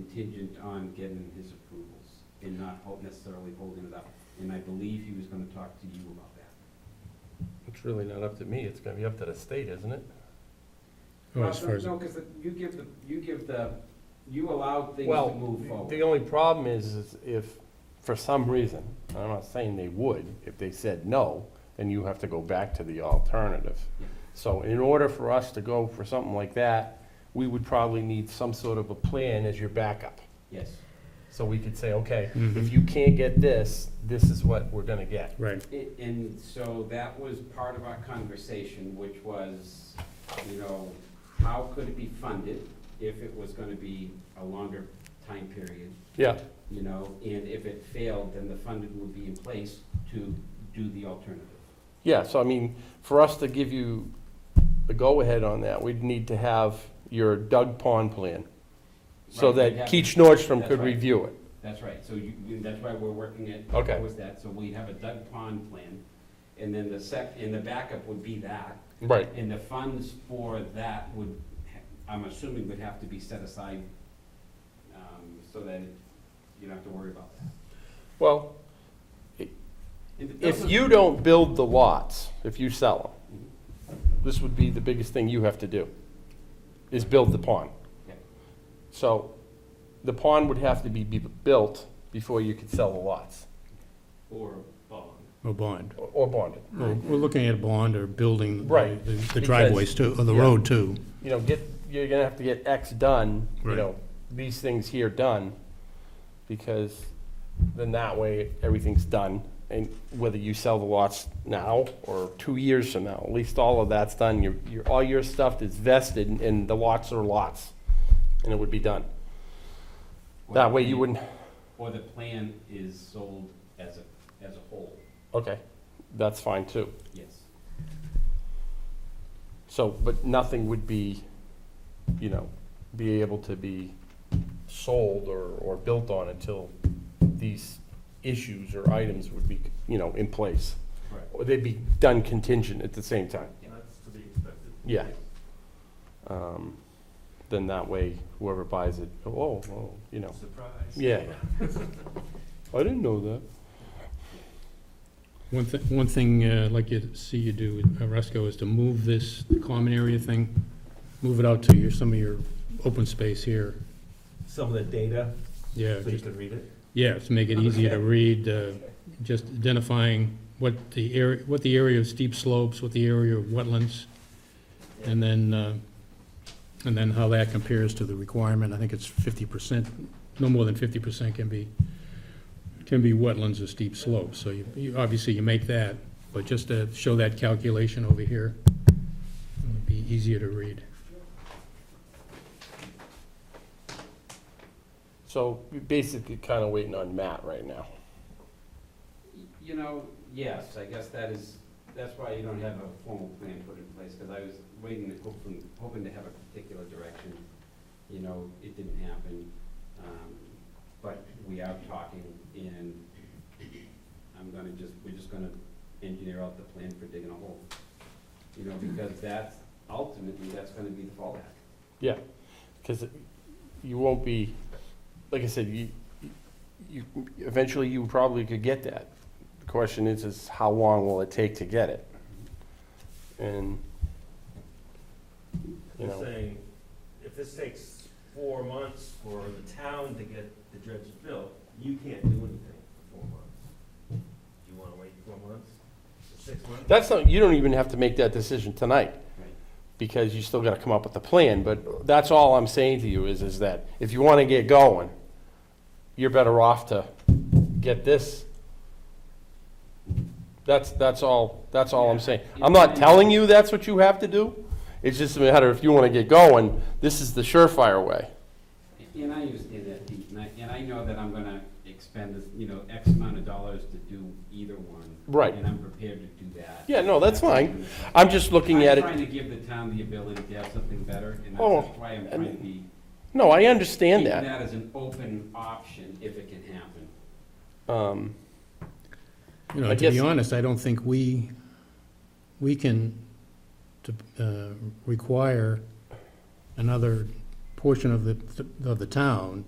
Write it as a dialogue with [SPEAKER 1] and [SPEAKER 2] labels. [SPEAKER 1] contingent on getting his approvals and not hold- necessarily holding it up. And I believe he was gonna talk to you about that.
[SPEAKER 2] It's really not up to me, it's gonna be up to the state, isn't it?
[SPEAKER 3] Well, as
[SPEAKER 1] Uh,
[SPEAKER 3] far as,
[SPEAKER 1] No, because you give the, you give the, you allow things
[SPEAKER 2] Well,
[SPEAKER 1] to move
[SPEAKER 2] The
[SPEAKER 1] forward.
[SPEAKER 2] only problem is, is if, for some reason, and I'm not saying they would, if they said no, then you have to go back to the alternative.
[SPEAKER 1] Yeah.
[SPEAKER 2] So in order for us to go for something like that, we would probably need some sort of a plan as your backup.
[SPEAKER 1] Yes.
[SPEAKER 2] So we could say, okay,
[SPEAKER 3] Mhm.
[SPEAKER 2] if you can't get this, this is what we're gonna get.
[SPEAKER 3] right,
[SPEAKER 1] A- And so that was part of our conversation, which was, you know, how could it be funded if it was gonna be a longer time period?
[SPEAKER 2] Yeah,
[SPEAKER 1] you know, and if it failed, then the funding would be in place to do the alternative.
[SPEAKER 2] yeah, so I mean, for us to give you the go-ahead on that, we'd need to have your Doug Pond plan,
[SPEAKER 1] Right,
[SPEAKER 2] so
[SPEAKER 1] we'd
[SPEAKER 2] that
[SPEAKER 1] have-
[SPEAKER 2] Keach Nordstrom
[SPEAKER 1] That's
[SPEAKER 2] could
[SPEAKER 1] right.
[SPEAKER 2] review it.
[SPEAKER 1] That's right, so you, you- that's why we're working it.
[SPEAKER 2] Okay.
[SPEAKER 1] Was that, so we'd have a Doug Pond plan, and then the sec, and the backup would be that,
[SPEAKER 2] Right.
[SPEAKER 1] and the funds for that would, ha- I'm assuming would have to be set aside, um, so that you don't have to worry about that.
[SPEAKER 2] Well,
[SPEAKER 1] And th- those
[SPEAKER 2] if
[SPEAKER 1] are-
[SPEAKER 2] you don't build the lots, if you sell
[SPEAKER 1] Mhm.
[SPEAKER 2] them, this would be the biggest thing you have to do, is build the pond.
[SPEAKER 1] Yeah.
[SPEAKER 2] So the pond would have to be, be built before you could sell the lots,
[SPEAKER 1] Or bond.
[SPEAKER 3] or bond.
[SPEAKER 2] or- or bond it.
[SPEAKER 3] We're we're looking at a bond or building the-
[SPEAKER 2] Right,
[SPEAKER 3] the the driveways too, or the
[SPEAKER 2] yeah.
[SPEAKER 3] road too.
[SPEAKER 2] You know, get, you're gonna have to get X done, you
[SPEAKER 3] Right.
[SPEAKER 2] know, these things here done, because then that way, everything's done. And whether you sell the lots now or two years from now, at least all of that's done. Your, your, all your stuff is vested and- and the lots are lots. And it would be done.
[SPEAKER 1] Or
[SPEAKER 2] That
[SPEAKER 1] the
[SPEAKER 2] way you
[SPEAKER 1] plan-
[SPEAKER 2] wouldn't,
[SPEAKER 1] Or the plan is sold as a, as a whole,
[SPEAKER 2] okay, that's fine too.
[SPEAKER 1] yes.
[SPEAKER 2] So, but nothing would be, you know, be able to be sold or, or built on until these issues or items would be, you know, in place.
[SPEAKER 1] Right.
[SPEAKER 2] Or they'd be done contingent at the same time.
[SPEAKER 4] That's to be expected.
[SPEAKER 2] Yeah. Um, Then that way, whoever buys it, oh, oh, you know,
[SPEAKER 4] Surprise.
[SPEAKER 2] yeah. I didn't know that.
[SPEAKER 3] One thing, one thing uh, I'd like you to see you do, uh, Resco, is to move this common area thing, move it out to your, some of your open space here.
[SPEAKER 4] Some of the data,
[SPEAKER 3] Yeah,
[SPEAKER 4] so you
[SPEAKER 3] just,
[SPEAKER 4] can read it.
[SPEAKER 3] yeah, to make it easier to read, uh, just identifying what the area, what the area of steep slopes, what the area of wetlands, and then, uh, and then how that compares to the requirement. I think it's fifty percent, no more than fifty percent can be, can be wetlands or steep slopes. So you, you, obviously you make that, but just to show that calculation over here, it would be easier to read.
[SPEAKER 2] So you're basically kind of waiting on Matt right now.
[SPEAKER 1] You know, yes, I guess that is, that's why you don't have a formal plan put in place, because I was waiting, to hoping, hoping to have a particular direction. You know, it didn't happen, um, but we are talking, and I'm gonna just, we're just gonna engineer out the plan for digging a hole. You know, because that's, ultimately, that's gonna be the fallback.
[SPEAKER 2] Because you won't be, like I said, you, you, eventually you probably could get that. The question is, is how long will it take to get it? And, you
[SPEAKER 4] You're
[SPEAKER 2] know,
[SPEAKER 4] saying, if this takes four months for the town to get the dredge built, you can't do anything for four months. Do you wanna wait four months, or six months?
[SPEAKER 2] that's not, you don't even have to make that decision tonight.
[SPEAKER 1] Right.
[SPEAKER 2] Because you still gotta come up with a plan, but that's all I'm saying to you is, is that if you wanna get going, you're better off to get this. That's, that's all, that's all I'm saying. I'm not telling you that's what you have to do. It's just a matter if you want to get going, this is the surefire way.
[SPEAKER 1] And I understand that, Pete, and I, and I know that I'm gonna expend, this, you know, X amount of dollars to do either one.
[SPEAKER 2] Right.
[SPEAKER 1] And I'm prepared to do that.
[SPEAKER 2] Yeah, no, that's fine. I'm just looking at
[SPEAKER 1] I'm trying to
[SPEAKER 2] it,
[SPEAKER 1] give the town the ability to have something better, and
[SPEAKER 2] Oh,
[SPEAKER 1] that's why I'm
[SPEAKER 2] I
[SPEAKER 1] trying
[SPEAKER 2] mean,
[SPEAKER 1] to be,
[SPEAKER 2] no, I
[SPEAKER 1] keeping
[SPEAKER 2] understand that.
[SPEAKER 1] that as an open option if it can happen.
[SPEAKER 2] Um,
[SPEAKER 3] You know,
[SPEAKER 2] I
[SPEAKER 3] to be
[SPEAKER 2] guess-
[SPEAKER 3] honest, I don't think we, we can to, uh, require another portion of the, of the town